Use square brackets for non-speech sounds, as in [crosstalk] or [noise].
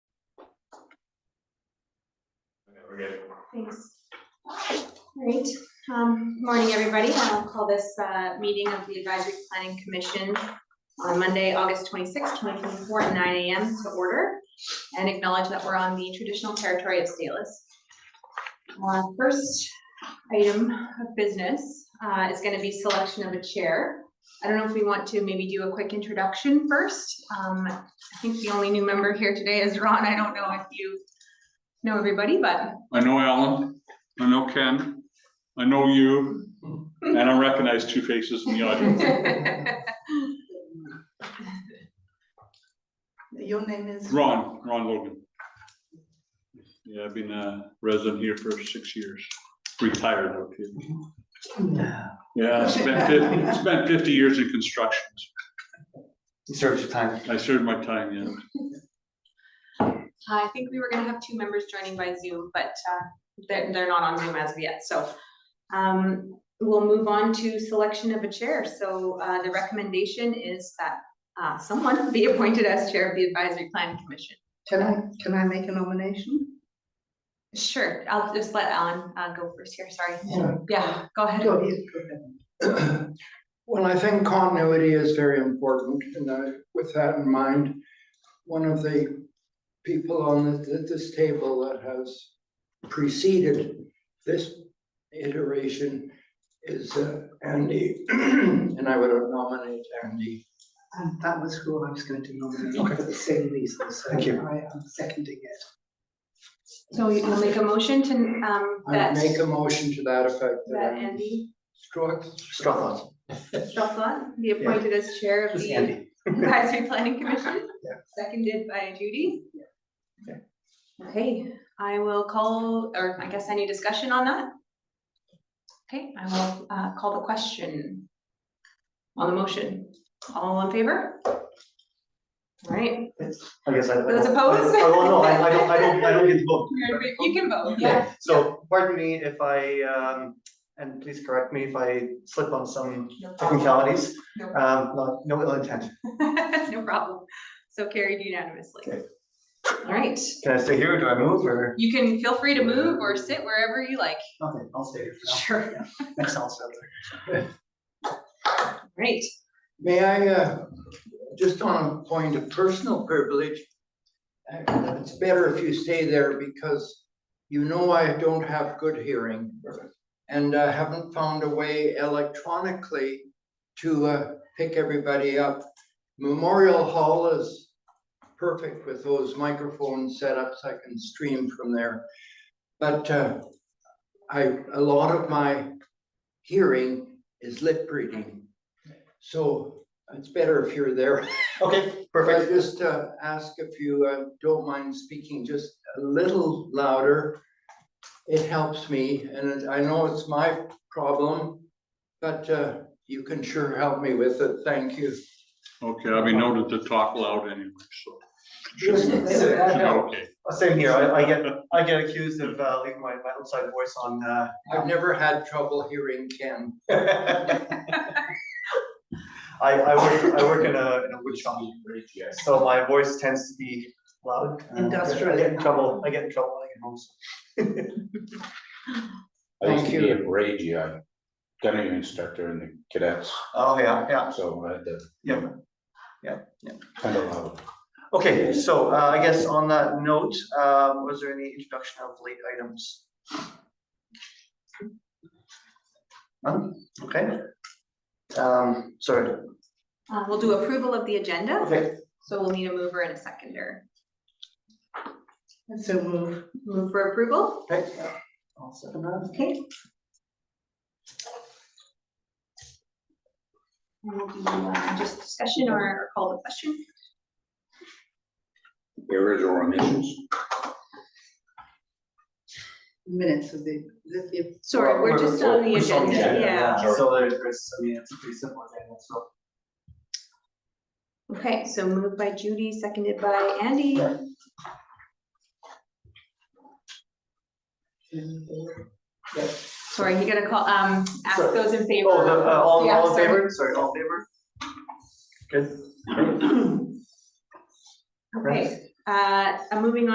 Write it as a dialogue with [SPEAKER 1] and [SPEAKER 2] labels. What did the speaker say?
[SPEAKER 1] okay.
[SPEAKER 2] Thanks. Great, um, morning, everybody. I'll call this, uh, meeting of the Advisory Planning Commission on Monday, August twenty-sixth, twenty twenty-four, at nine AM to order and acknowledge that we're on the traditional territory of Salus. Uh, first item of business, uh, is gonna be selection of a chair. I don't know if we want to maybe do a quick introduction first. Um, I think the only new member here today is Ron. I don't know if you know everybody, but [laughs]
[SPEAKER 3] I know Alan, I know Ken, I know you, and I recognize two faces in the audience.
[SPEAKER 4] Your name is?
[SPEAKER 3] Ron, Ron Logan. Yeah, I've been a resident here for six years, retired. okay. Yeah, I spent fifty, spent fifty years in construction.
[SPEAKER 1] You served your time.
[SPEAKER 3] I served my time, yeah.
[SPEAKER 2] Uh, I think we were gonna have two members joining by Zoom, but uh, they're, they're not on Zoom as of yet, so. um, We'll move on to selection of a chair. So uh, the recommendation is that uh, someone be appointed as chair of the Advisory Planning Commission.
[SPEAKER 4] Can I, can I make a nomination?
[SPEAKER 2] Sure, I'll just let Alan uh, go first here, sorry.
[SPEAKER 5] Yeah.
[SPEAKER 2] Yeah, go ahead.
[SPEAKER 4] Go ahead, go ahead.
[SPEAKER 5] [clears throat] Well, I think continuity is very important, and I- with that in mind, one of the people on th- th- this table that has preceded this iteration is uh, Andy, [clears throat] and I would nominate Andy.
[SPEAKER 4] And that was who I was going to
[SPEAKER 5] Okay.
[SPEAKER 4] nominate for the same reason, so I
[SPEAKER 5] Thank you.
[SPEAKER 4] am seconding it.
[SPEAKER 2] So you'll make a motion to, um,
[SPEAKER 5] I
[SPEAKER 2] that,
[SPEAKER 5] would make a motion to that effect.
[SPEAKER 2] that Andy
[SPEAKER 5] Strauss?
[SPEAKER 1] Strong
[SPEAKER 2] Jocelyn be appointed as chair of
[SPEAKER 1] Just
[SPEAKER 2] the
[SPEAKER 1] Andy.
[SPEAKER 2] Advisory Planning Commission,
[SPEAKER 5] Yeah.
[SPEAKER 2] seconded by Judy.
[SPEAKER 5] Yeah.
[SPEAKER 2] Okay, I will call, or I guess any discussion on that? Okay, I will uh, call the question on the motion. All in favor? All right,
[SPEAKER 1] I guess I. I
[SPEAKER 2] Those
[SPEAKER 1] don't-
[SPEAKER 2] opposed?
[SPEAKER 1] I don't- Oh, no, I I don't, I don't, I don't get to
[SPEAKER 2] [laughs]
[SPEAKER 1] vote.
[SPEAKER 2] you can vote, yeah.
[SPEAKER 1] Okay, so pardon me if I, um, and please correct me if I slip on some
[SPEAKER 2] No problem.
[SPEAKER 1] technicalities.
[SPEAKER 2] No.
[SPEAKER 1] Um, no, no ill intent.
[SPEAKER 2] [laughs] No problem. So carried unanimously.
[SPEAKER 1] Okay.
[SPEAKER 2] All right,
[SPEAKER 1] Can I stay here or do I move or?
[SPEAKER 2] you can feel free to move or sit wherever you like.
[SPEAKER 1] Okay, I'll stay here for
[SPEAKER 2] Sure.
[SPEAKER 1] now. [laughs] Next, I'll sit there.
[SPEAKER 2] Great.
[SPEAKER 5] May I, uh, just on a point of personal privilege, uh, it's better if you stay there because you know I don't have good hearing. And I haven't found a way electronically to uh, pick everybody up. Memorial Hall is perfect with those microphone setups. I can stream from there. But uh, I, a lot of my hearing is lip reading. So it's better if you're there.
[SPEAKER 1] Okay,
[SPEAKER 5] I
[SPEAKER 1] perfect.
[SPEAKER 5] just uh, ask if you uh, don't mind speaking just a little louder. It helps me, and I know it's my problem, but uh, you can sure help me with it. Thank you.
[SPEAKER 3] Okay, I'll be noted to talk loud anyway, so. should
[SPEAKER 5] Just
[SPEAKER 3] be-
[SPEAKER 5] that
[SPEAKER 3] should be
[SPEAKER 5] helps.
[SPEAKER 3] okay.
[SPEAKER 1] Uh, Same here. I, I get, I get accused of uh, leaving my, my outside voice on, uh, [laughs]
[SPEAKER 5] I've never had trouble hearing Ken.
[SPEAKER 1] I, I work, I work in a, in a wood shop, so my voice tends to be loud. and Uh, I get- I
[SPEAKER 4] Industrial.
[SPEAKER 1] get in trouble, I get in trouble when I get home, so.
[SPEAKER 6] I used
[SPEAKER 5] Thank
[SPEAKER 6] to be
[SPEAKER 5] you.
[SPEAKER 6] a parade GI, gunnery instructor in the cadets,
[SPEAKER 1] Oh, yeah, yeah,
[SPEAKER 6] so I had to.
[SPEAKER 1] Yeah. Yeah, yeah.
[SPEAKER 6] Kind of uh, loud.
[SPEAKER 1] okay, so uh, I guess on that note, uh, was there any introduction of late items? None, okay. Um, sorry,
[SPEAKER 2] Uh, we'll do approval of the agenda,
[SPEAKER 1] okay,
[SPEAKER 2] so we'll need a mover and a seconder.
[SPEAKER 4] And so move.
[SPEAKER 2] Move for approval,
[SPEAKER 1] okay, yeah, I'll second that.
[SPEAKER 2] okay? And we'll do, uh, just discussion or- or call the question.
[SPEAKER 6] The original omissions.
[SPEAKER 4] Minutes of the, the- if,
[SPEAKER 2] Sorry, we're just on the
[SPEAKER 1] We're still
[SPEAKER 2] agenda, yeah.
[SPEAKER 1] So there's, there's, I mean, it's a pretty simple agenda, so.
[SPEAKER 2] Okay, so moved by Judy, seconded by Andy. Sorry, you gotta call, um, ask
[SPEAKER 1] Sorry.
[SPEAKER 2] those in favor.
[SPEAKER 1] Oh, the, uh, all,
[SPEAKER 2] Yeah,
[SPEAKER 1] all in
[SPEAKER 2] sorry.
[SPEAKER 1] favor, sorry, all in favor? Good.
[SPEAKER 2] Okay, uh, I'm moving on